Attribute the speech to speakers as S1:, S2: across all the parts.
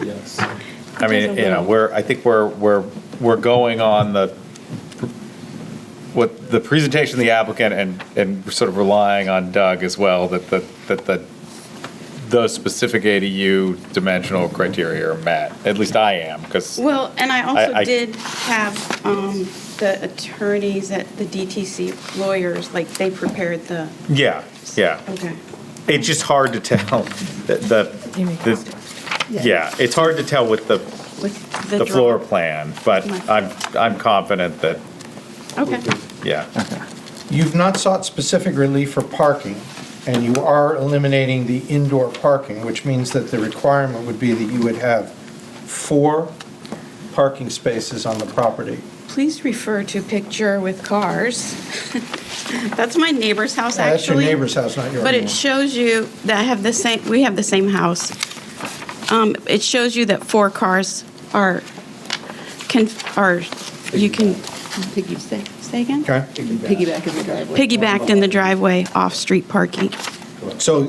S1: Yes.
S2: I mean, you know, we're, I think we're, we're, we're going on the, what, the presentation of the applicant and, and sort of relying on Doug as well, that, the that, that those specific ADU dimensional criteria are met, at least I am, because,
S3: Well, and I
S2: I- I-
S3: also did have um, the attorneys at the DTC lawyers, like, they prepared the,
S2: yeah, yeah.
S3: okay.
S2: It's just hard to tell, the- the, the, yeah, it's hard to tell with the,
S3: with
S2: the
S3: draw-
S2: floor plan, but
S3: My-
S2: I'm, I'm confident that,
S3: Okay,
S2: yeah.
S4: You've not sought specific relief for parking, and you are eliminating the indoor parking, which means that the requirement would be that you would have four parking spaces on the property.
S3: please refer to picture with cars. That's my neighbor's house,
S4: Now,
S3: actually.
S4: That's your neighbor's house, not yours.
S3: But it shows you that I have the same, we have the same house. Um, It shows you that four cars are, can, are, you can, piggy, say, say again?
S4: Okay,
S5: Piggyback in the driveway.
S3: Piggybacked in the driveway, off-street parking.
S4: so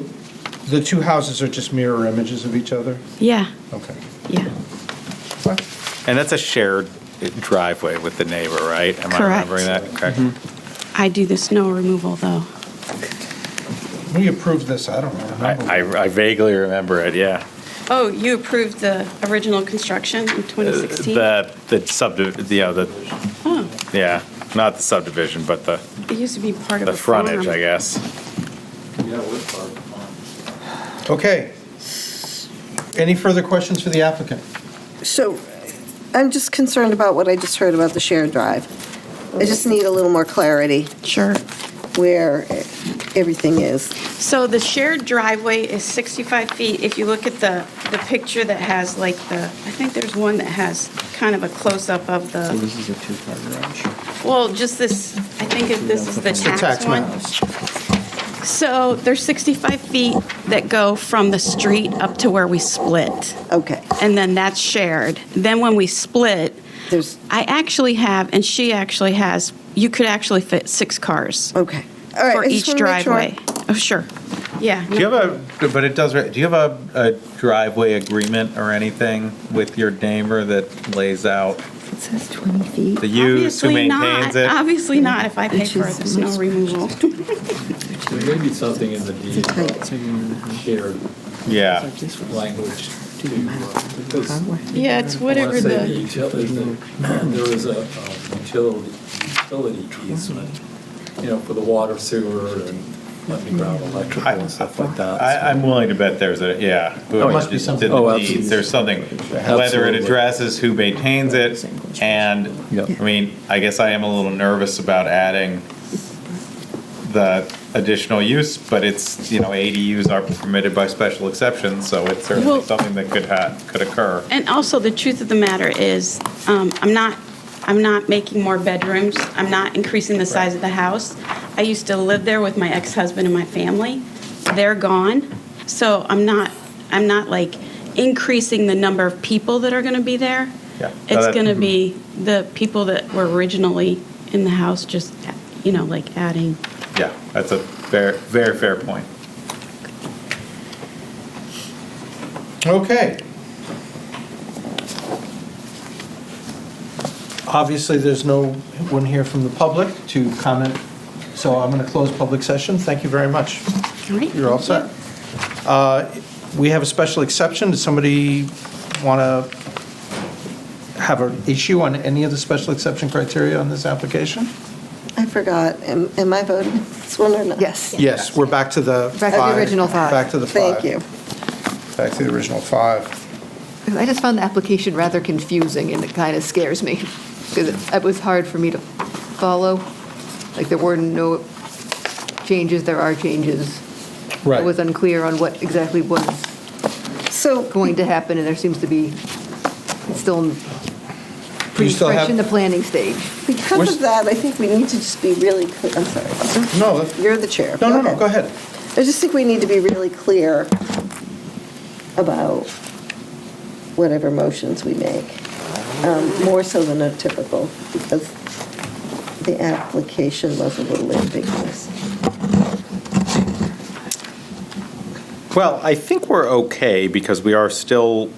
S4: the two houses are just mirror images of each other?
S3: Yeah,
S4: Okay.
S3: yeah,
S2: And that's a shared driveway with the neighbor, right? Am I
S3: Correct.
S2: remembering that correct?
S3: I do the snow removal, though.
S4: We approved this, I don't
S2: I-
S4: remember.
S2: I I vaguely remember it, yeah.
S3: Oh, you approved the original construction in 2016?
S2: The, the subdiv, you know, the,
S3: Oh,
S2: yeah, not the subdivision, but the,
S3: it used to be part of
S2: the
S3: a farm.
S2: frontage, I guess.
S1: Yeah, we're part of the farm.
S4: Okay. Any further questions for the applicant?
S5: So I'm just concerned about what I just heard about the shared drive. I just need a little more clarity
S3: Sure.
S5: where everything is.
S3: So the shared driveway is 65 feet. If you look at the, the picture that has like the, I think there's one that has kind of a close-up of the,
S1: This is a two-car garage.
S3: well, just this, I think if this is the
S4: It's the
S3: tax one.
S4: map.
S3: So there's 65 feet that go from the street up to where we split,
S5: Okay,
S3: and then that's shared. Then when we split,
S5: there's,
S3: I actually have, and she actually has, you could actually fit six cars
S5: okay. All right,
S3: for
S5: I
S3: each
S5: just wanna make sure.
S3: driveway. Oh, sure. Yeah.
S2: Do you have a, but it does, do you have a, a driveway agreement or anything with your neighbor that lays out
S6: It says 20 feet.
S2: the use, who
S3: Obviously not.
S2: maintains it?
S3: Obviously not, if I pay
S6: Which
S3: for
S6: is
S3: the snow
S6: much-
S3: removal.
S1: There may be something in the deed
S6: It's a tight-
S1: about shared
S2: Yeah,
S1: language to, uh, because
S3: Yeah, it's
S1: I want
S3: whatever
S1: to say the
S3: the,
S1: utility, there was a um, utility, utility easement, you know, for the water sewer and underground electrical and stuff like that.
S2: I, I'm willing to bet there's a, yeah. whoever
S4: must be
S2: just
S4: something.
S2: did the
S1: Oh,
S2: deeds,
S1: absolutely.
S2: There's something, whether it
S1: Absolutely.
S2: addresses who maintains it, and,
S1: Yep.
S2: I mean, I guess I am a little nervous about adding the additional use, but it's, you know, ADUs are permitted by special exceptions, so it's certainly
S3: Well-
S2: something that could ha, could occur.
S3: and also the truth of the matter is, um, I'm not, I'm not making more bedrooms. I'm not increasing the size of the house. I used to live there with my ex-husband and my family. They're gone. So I'm not, I'm not like increasing the number of people that are going to be there.
S2: Yeah. No,
S3: It's
S2: that- mm-hmm.
S3: going to be the people that were originally in the house, just, you know, like adding.
S2: Yeah, that's a fair, very fair point.
S4: Okay. Obviously, there's no one here from the public to comment, so I'm going to close public session. Thank you very much.
S3: Great.
S4: You're all set. Uh, We have a special exception. Does somebody want to have an issue on any of the special exception criteria on this application?
S5: I forgot, am am I voting this one or not?
S6: Yes.
S4: Yes, we're back to the
S6: Back to the
S4: five.
S6: original five.
S4: Back to the five.
S5: Thank you.
S4: Back to the original five.
S6: I just found the application rather confusing, and it kind of scares me, because it it was hard for me to follow. Like, there were no changes, there are changes.
S4: Right.
S6: It was unclear on what exactly was
S5: So
S6: going to happen, and there seems to be, it's still pretty
S4: still
S6: fresh
S4: have-
S6: in the planning stage.
S4: We're-
S5: because of that, I think we need to just be really clear, I'm sorry,
S4: No, that's-
S5: you're the chair.
S4: no, no, no, go ahead.
S5: I just think we need to be really clear about whatever motions we make, um, more so than a typical, because the application was a little ambiguous.
S2: Well, I think we're okay because we are still